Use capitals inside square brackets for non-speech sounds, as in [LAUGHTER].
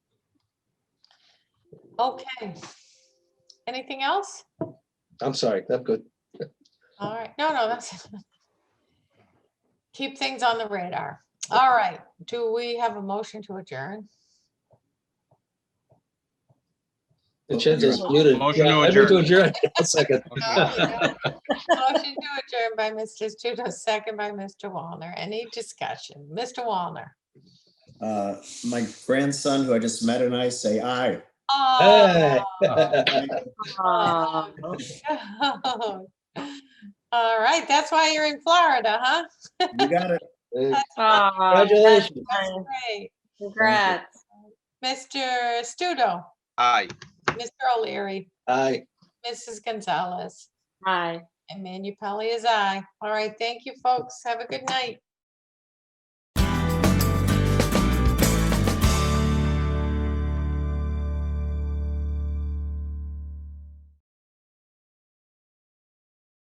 Okay. Anything else? I'm sorry, I'm good. All right, no, no, that's. [LAUGHS] Keep things on the radar. All right, do we have a motion to adjourn? The chin's is muted. Motion to Yeah, I move adjourn. [LAUGHS] A [LAUGHS] second. No, we don't. Motion to adjourn by Mr. Studo, second by Mr. Wallner. Any discussion? Mr. Wallner? Uh, my grandson, who I just met, and I say [LAUGHS] aye. Oh, Aw. oh, no. [LAUGHS] All right, that's why you're in Florida, huh? You got it. Hey, That's why- Aw, Congratulations. that's great. Congrats. Mr. Studo, Aye. Mr. O'Leary, Aye. Mrs. Gonzalez, Hi. and Manu Pelley is I. All right, thank you, folks. Have a good night.